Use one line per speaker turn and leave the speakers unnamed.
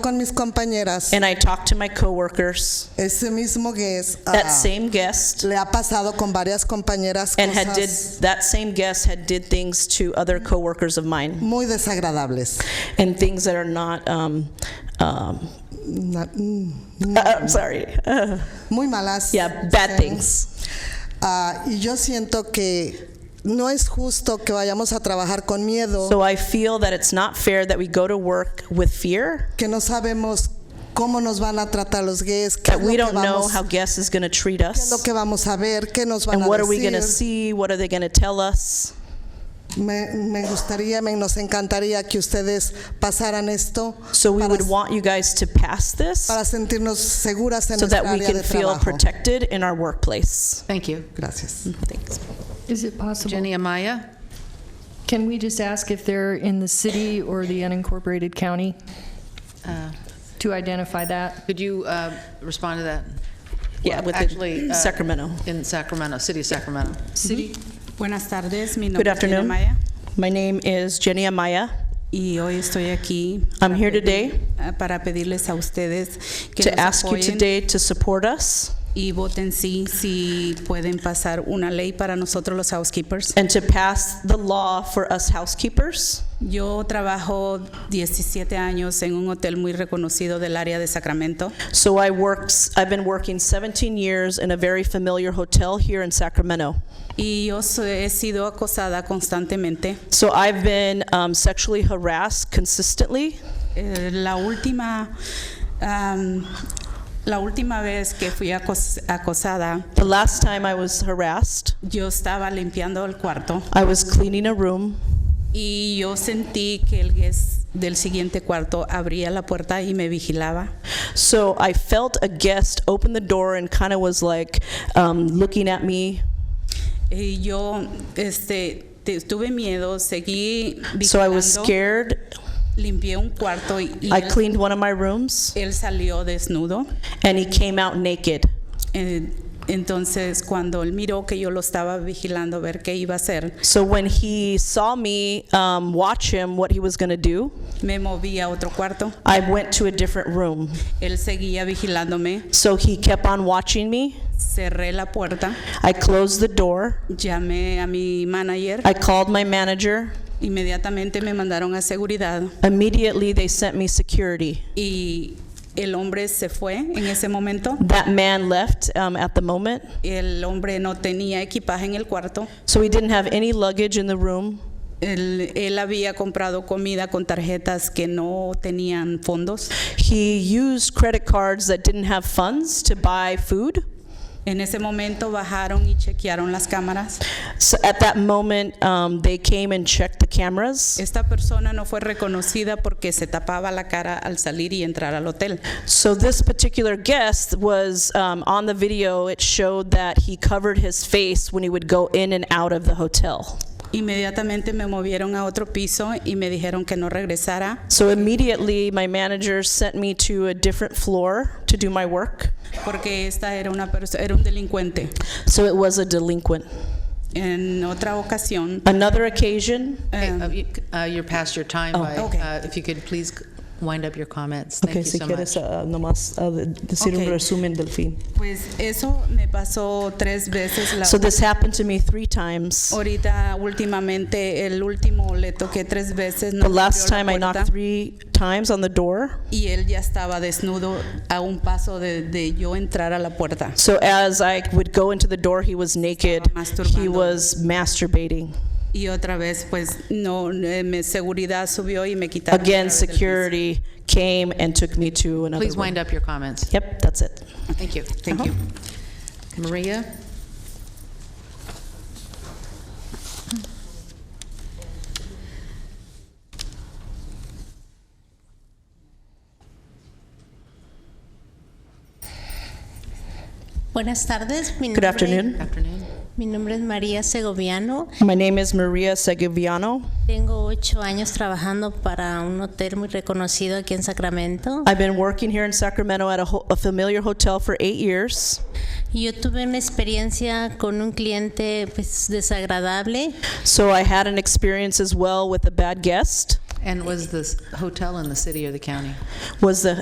con mis compañeras.
and I talked to my coworkers,
Ese mismo guest ah,
that same guest,
le ha pasado con varias compañeras
and
cosas
had did that same guest had did things to other coworkers of mine,
muy desagradables.
and things that are not. Um, um,
Na- mm, mm,
uh, I'm sorry. Uh,
muy malas.
yeah, bad
Sí.
things.
Ah, y yo siento que no es justo que vayamos a trabajar con miedo,
So I feel that it's not fair that we go to work with fear,
que no sabemos cómo nos van a tratar los gays, qué
that
es lo
we
que
don't know
vamos,
how guests is going to treat
qué es lo
us,
que vamos a ver, qué nos van
and
a
what are we going to
decir.
see, what are they going to tell us.
Me, me gustaría, me nos encantaría que ustedes pasaran esto
So we
para,
would want you guys to pass this
para sentirnos seguras en
so
nuestra
that we
área
can
de
feel
trabajo.
protected in our workplace.
Thank you.
Gracias.
Thanks.
Is it possible?
Jenny Amaya?
Can we just ask if they're in the city or the unincorporated county
uh,
to identify that?
Could you uh, respond to that?
Yeah,
Well,
with the
actually, uh,
Sacramento.
In Sacramento, city of Sacramento.
Sí. Buenas tardes, mi nombre
Good
es Jenny
afternoon.
Maya
My name is Jenny Amaya.
y hoy estoy aquí
I'm here
pedir-
today
ah, para pedirles a ustedes que
to
nos
ask you
apoyen
today to support us
y voten sí si pueden pasar una ley para nosotros los housekeepers.
and to pass the law for us housekeepers.
Yo trabajo 17 años en un hotel muy reconocido del área de Sacramento
So I worked, I've been working 17 years in a very familiar hotel here in Sacramento.
y yo so- he sido acosada constantemente.
So I've been um, sexually harassed consistently.
Eh, la última am, la última vez que fui acos- acosada,
The last time I was harassed,
yo estaba limpiando el cuarto.
I was cleaning a room
Y yo sentí que el guest del siguiente cuarto abría la puerta y me vigilaba.
So I felt a guest open the door and kind of was like um, looking at me.
Y yo este, te- tuve miedo, seguí
So I was
vigilando,
scared.
limpié un cuarto y, y
I
él,
cleaned one of my rooms
él salió desnudo.
and he came out naked.
Eh, entonces, cuando él miró que yo lo estaba vigilando a ver qué iba a hacer,
So when he saw me um, watch him, what he was going to do,
me moví a otro cuarto.
I went to a different room.
Él seguía vigilándome,
So he kept on watching me.
cerré la puerta,
I closed the door.
llamé a mi manager,
I called my manager.
inmediatamente me mandaron a seguridad.
Immediately, they sent me security.
y el hombre se fue en ese momento.
That man left um, at the moment.
El hombre no tenía equipaje en el cuarto.
So he didn't have any luggage in the room.
Él, él había comprado comida con tarjetas que no tenían fondos.
He used credit cards that didn't have funds to buy food.
En ese momento bajaron y chequearon las cámaras.
So at that moment, um, they came and checked the cameras.
Esta persona no fue reconocida porque se tapaba la cara al salir y entrar al hotel.
So this particular guest was um, on the video. It showed that he covered his face when he would go in and out of the hotel.
Inmediatamente me movieron a otro piso y me dijeron que no regresara.
So immediately, my manager sent me to a different floor to do my work.
Porque esta era una persona, era un delincuente.
So it was a delinquent.
En otra ocasión,
Another occasion.
Okay,
em,
uh, you- uh, You're past your time. by,
okay.
uh, If you could please wind up your comments. Thank you so much.
uh, nomás decir
un Ok.
resumen del fin.
Pues eso me pasó tres veces. La
So this happened to me three times.
ahorita últimamente el último le toqué tres veces. no
The last
abrió la
time I
puerta,
knocked three times on the door.
Y él ya estaba desnudo a un paso de, de yo entrar a la puerta.
So as I would go into the door, he was naked.
Estaba
He
masturbando.
was masturbating.
Y otra vez, pues no, eh, me- seguridad subió y me quitaron. otra
Again,
vez del piso.
security came and took me to another
Please wind
room.
up your comments.
Yep, that's it.
Thank you. Uh-huh.
Thank you.
Maria?
Buenas tardes. Mi
Good
nombre-
afternoon.
Afternoon.
Mi nombre es María Segoviano.
My name is Maria Segoviano.
Tengo ocho años trabajando para un hotel muy reconocido aquí en Sacramento.
I've been working here in Sacramento at a ho- a familiar hotel for eight years.
Y Yo tuve una experiencia con un cliente pues, desagradable.
So I had an experience as well with a bad guest.
And was this hotel in the city or the county?
Was the